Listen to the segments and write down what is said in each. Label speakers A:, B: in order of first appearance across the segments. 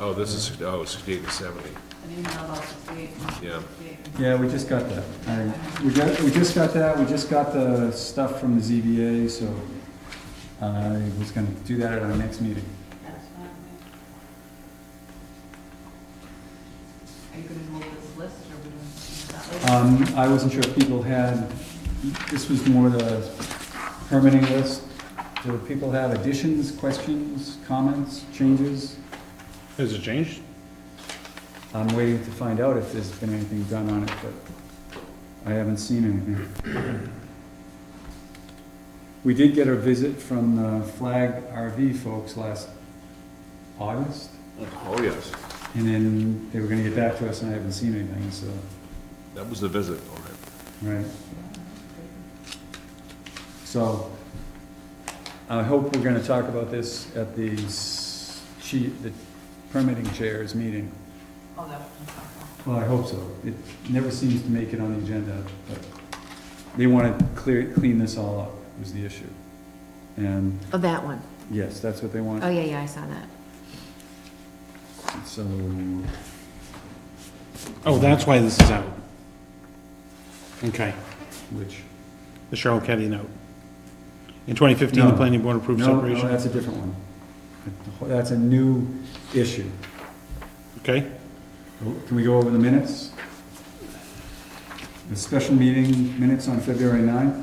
A: Oh, this is, oh, 68 to 70,
B: an email about sixty-eight and
A: yeah.
B: sixty-eight.
C: Yeah, we just got that. I- We got, we just got that, we just got the stuff from the ZBA, so I was gonna do that at our next meeting.
B: That's fine. yeah. Are you gonna hold this list, or are we doing that later?
C: Um, I wasn't sure if people had, this was more the permitting list. Do people have additions, questions, comments, changes?
D: Has it changed?
C: I'm waiting to find out if there's been anything done on it, but I haven't seen anything. We did get a visit from the Flag RV folks last August,
A: Oh, yes,
C: and then they were gonna get back to us, and I haven't seen anything, so,
A: that was the visit, all right.
C: right. So, I hope we're gonna talk about this at the s- chi- the permitting chairs meeting.
B: Oh, that one's
C: Well, I hope so. It never seems to make it on the agenda, but they want to clear, clean this all up, was the issue. And,
E: Oh, that one.
C: yes, that's what they want,
E: Oh, yeah, yeah, I saw that.
C: so,
D: Oh, that's why this is out. Okay,
C: which,
D: the Cheryl Kelly note. In 2015, the
C: No.
D: planning board approved
C: no, no,
D: separation.
C: that's a different one. That's a new issue.
D: Okay,
C: Can we go over the minutes? The special meeting minutes on February 9th?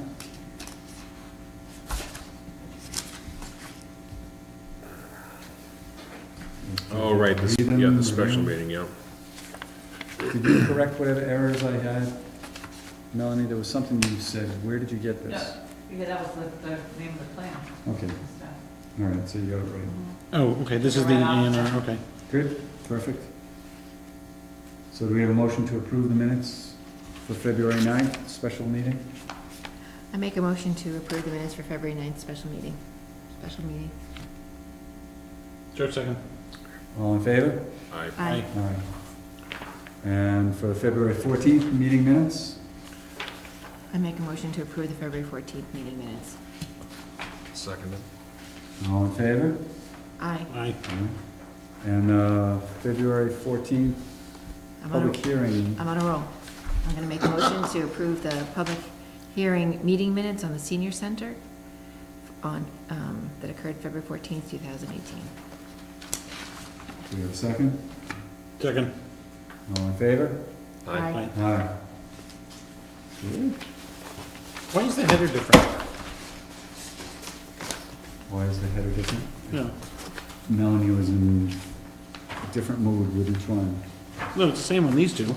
A: Oh, right, this,
C: Read them,
A: yeah, the special
C: review.
A: meeting, yeah.
C: Did you correct whatever errors I had? Melanie, there was something you said, where did you get
B: my
C: this?
B: fault. No, yeah, that was the, the name of the plan.
C: Okay,
B: and stuff.
C: all right, so you got it right.
D: oh, okay, this is the A and R, okay.
C: Good, perfect. So do we have a motion to approve the minutes for February 9th, special meeting?
E: I make a motion to approve the minutes for February 9th special meeting. Special meeting.
D: Sure, second.
C: All in favor?
A: I,
D: Aye.
C: All right. And for the February 14th, meeting minutes?
E: I make a motion to approve the February 14th meeting minutes.
A: second it.
C: All in favor?
E: Aye.
D: Aye.
C: All right. And uh, February 14th,
E: I'm on
C: public
E: a,
C: hearing.
E: I'm on a roll. I'm going to make a motion to approve the public hearing meeting minutes on the senior center on, um, that occurred February 14th, 2018.
C: Do we have a second?
D: Second.
C: All in favor?
A: Aye.
D: Aye.
C: Aye.
D: Why is the header different?
C: Why is the header different?
D: No,
C: Melanie was in a different mood with each one.
D: no, it's the same on these two.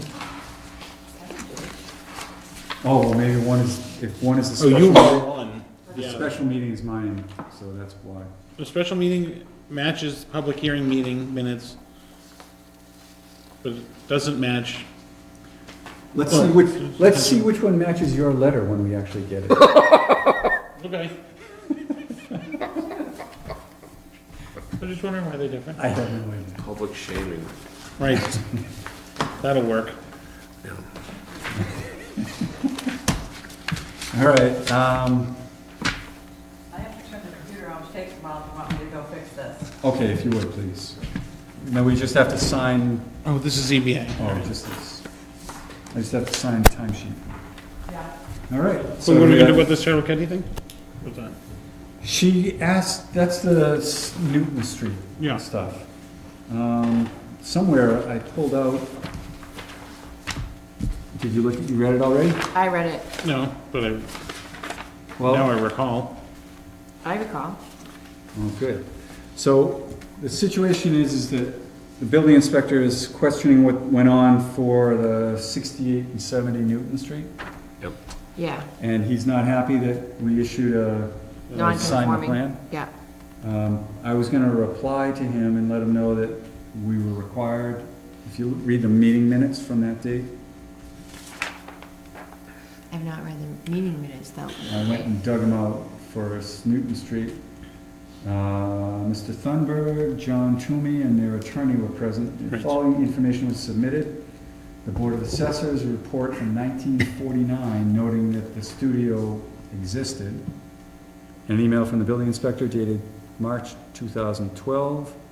C: Oh, well, maybe one is, if one is the
D: Oh,
C: special.
D: one.
C: The
D: Yeah,
C: special meeting is mine, so that's why.
D: the special meeting matches public hearing meeting minutes, but it doesn't match,
C: Let's see which, let's see which one matches your letter when we actually get it.
D: okay. I'm just wondering why they're different.
C: I have no idea.
A: Public shaming.
D: Right. That'll work.
C: All right, um,
B: I have to turn the computer on, it takes a while if you want me to go fix this.
C: okay, if you would, please. Now, we just have to sign,
D: Oh, this is ZBA.
C: oh, just this. I just have to sign the timesheet.
B: Yeah.
C: All right.
D: So what are we gonna do about this Cheryl Kennedy thing? What's that?
C: She asked, that's the s- Newton Street
D: Yeah.
C: stuff. Um, somewhere I pulled out. Did you look, at you read it already?
E: I read it.
D: No, but I,
C: Well,
D: now I recall.
E: I recall.
C: Oh, good. So the situation is, is that the building inspector is questioning what went on for the 68 and 70 Newton Street,
E: Yeah.
C: and he's not happy that we issued a a signed
E: Non-conforming.
C: plan.
E: Yeah.
C: Um, I was gonna reply to him and let him know that we were required, if you read the meeting minutes from that date,
E: I've not read the meeting minutes, though.
C: I went and dug them out for Newton Street. Uh, Mr. Thunberg, John Toomey, and their attorney were present. The
D: Right.
C: following information was submitted. The Board of Assessors report from 1949 noting that the studio existed. An email from the building inspector dated March 2012.